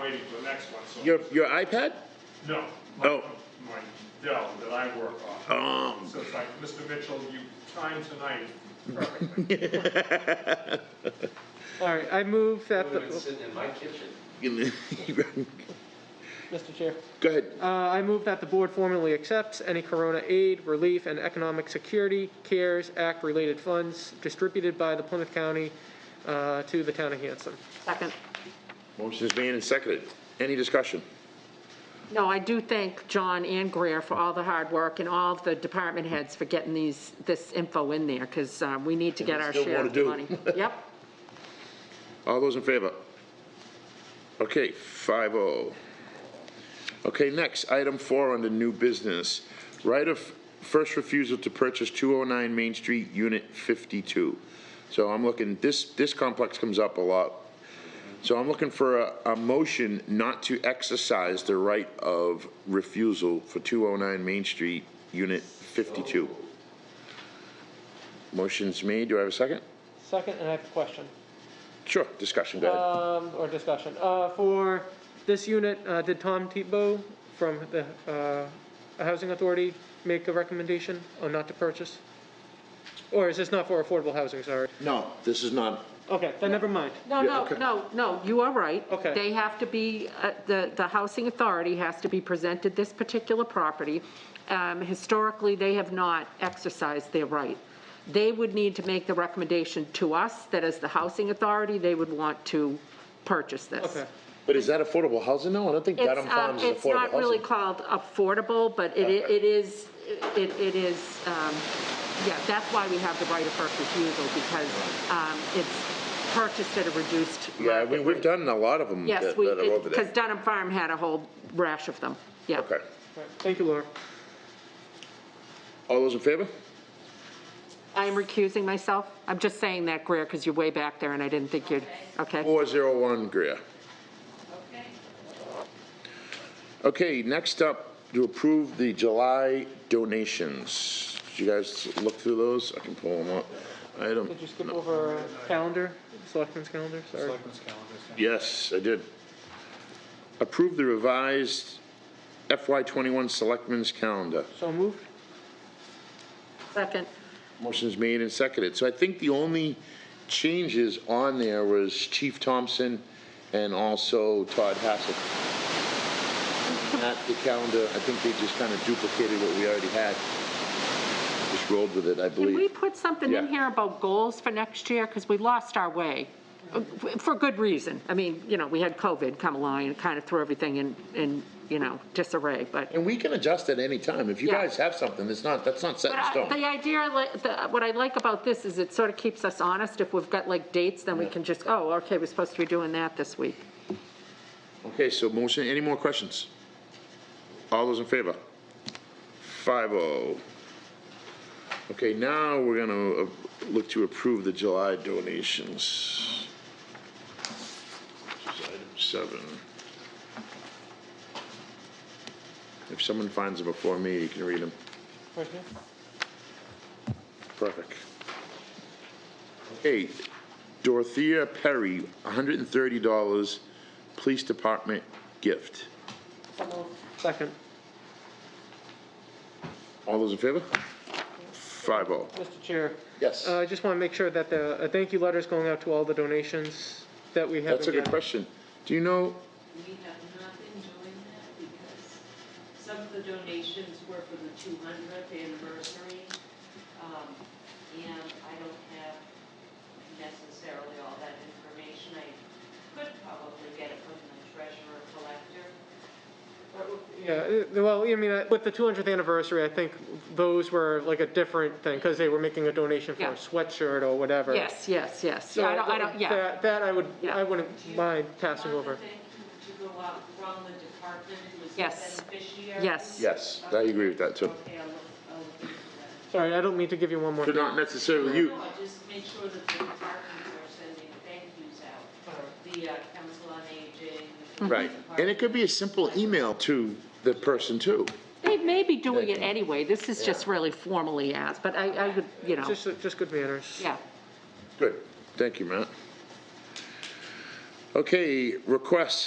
waiting for the next one, so. Your, your iPad? No. my- Oh. My Dell that I work on. Um, So it's like, Mr. Mitchell, you timed tonight perfectly. All right, I move that the, Would have been sitting in my kitchen. Mr. Chair, Go ahead. uh, I move that the board formally accepts any Corona aid, relief, and economic security CARES Act-related funds distributed by the Plymouth County uh, to the town of Hanson. Second. Motion is made and seconded. Any discussion? No, I do thank John and Greer for all the hard work and all the department heads for getting these, this info in there, because we need to get our still share more of to the do. money. Yep. All those in favor? Okay, five oh. Okay, next, item four under new business. Right of first refusal to purchase two oh nine Main Street, unit fifty-two. So I'm looking, this, this complex comes up a lot. So I'm looking for a, a motion not to exercise the right of refusal for two oh nine Main Street, unit fifty-two. Motion's made, do I have a second? Second, and I have a question. Sure, discussion, go ahead. Um, or discussion. Uh, for this unit, uh, did Tom Tebow from the, uh, Housing Authority make a recommendation on not to purchase? Or is this not for affordable housing, sorry? No, this is not, Okay, then never mind. No, Yeah, no, okay. no, no, you are right. Okay. They have to be, uh, the, the housing authority has to be presented this particular property. Um, Historically, they have not exercised their right. They would need to make the recommendation to us that as the housing authority, they would want to purchase this. Okay. but is that affordable housing? No, I don't think It's, Dedham um, Farms is it's affordable not really housing. called affordable, but it, i- Okay. it is, it, it is, um, yeah, that's why we have the right of first refusal, because, um, it's purchased at a reduced market Yeah, I mean, we've rate. done a lot of them that Yes, that we, are over because there. Dunham Farm had a whole rash of them, yeah. Okay. Right, Thank you, Laura. All those in favor? I'm recusing myself, I'm just saying that, Greer, because you're way back there and I didn't think you'd, okay? Four zero one, Greer. Okay, next up, to approve the July donations. Did you guys look through those? I can pull them up. Item, Did you skip over uh, calendar, selectmen's calendar, sorry? yes, I did. Approve the revised FY twenty-one Selectmen's Calendar. So moved? Second, Motion's made and seconded. So I think the only changes on there was Chief Thompson and also Todd Hassel. At the calendar, I think they just kind of duplicated what we already had. Just rolled with it, I can we believe. put something in Yeah. here about goals for next year, because we lost our way? uh, For good reason, I mean, you know, we had COVID come along and kind of threw everything in, in, you know, disarray, but And we can adjust at any time. If you Yeah. guys have something, it's not, that's not set in But I- stone. the idea, I li- the- what I like about this is it sort of keeps us honest. If we've got like dates, then we can just, oh, okay, we're supposed to be doing that this week. Okay, so motion, any more questions? All those in favor? Five oh. Okay, now we're gonna uh, look to approve the July donations. Which is item seven. If someone finds them before me, you can read them. Right here? Perfect. Okay, Dorothea Perry, hundred and thirty dollars, Police Department gift. Second. All those in favor? Five oh. Mr. Chair, Yes. uh, I just want to make sure that the, a thank you letter is going out to all the donations that we have. That's a good question. Do you know, We have not been doing that because some of the donations were for the 200th anniversary. um, And I don't have necessarily all that information. I could probably get it from the treasurer collector. But Yeah, uh, well, I mean, uh, with the 200th anniversary, I think those were like a different thing, because they were making a donation for a Yeah. sweatshirt or whatever. Yes, yes, yes. So Yeah, I don't, I don't, yeah. That, that I would, Yeah. I wouldn't mind passing over. Want the thank you to go out from the department who is the Yes. beneficiary? Yes. Yes, I agree with that too. Okay, I'll look, I'll look into that. Sorry, I don't mean to give you one more. but not necessarily you, No, I just make sure that the departments are sending thank yous out. the uh, Council on Aging. the right? And it could be a simple email to the person too. They may be doing it anyway. This is just really formally asked, but I, I would, you know, Just, just good manners. yeah. Good, thank you, Matt. Okay, requests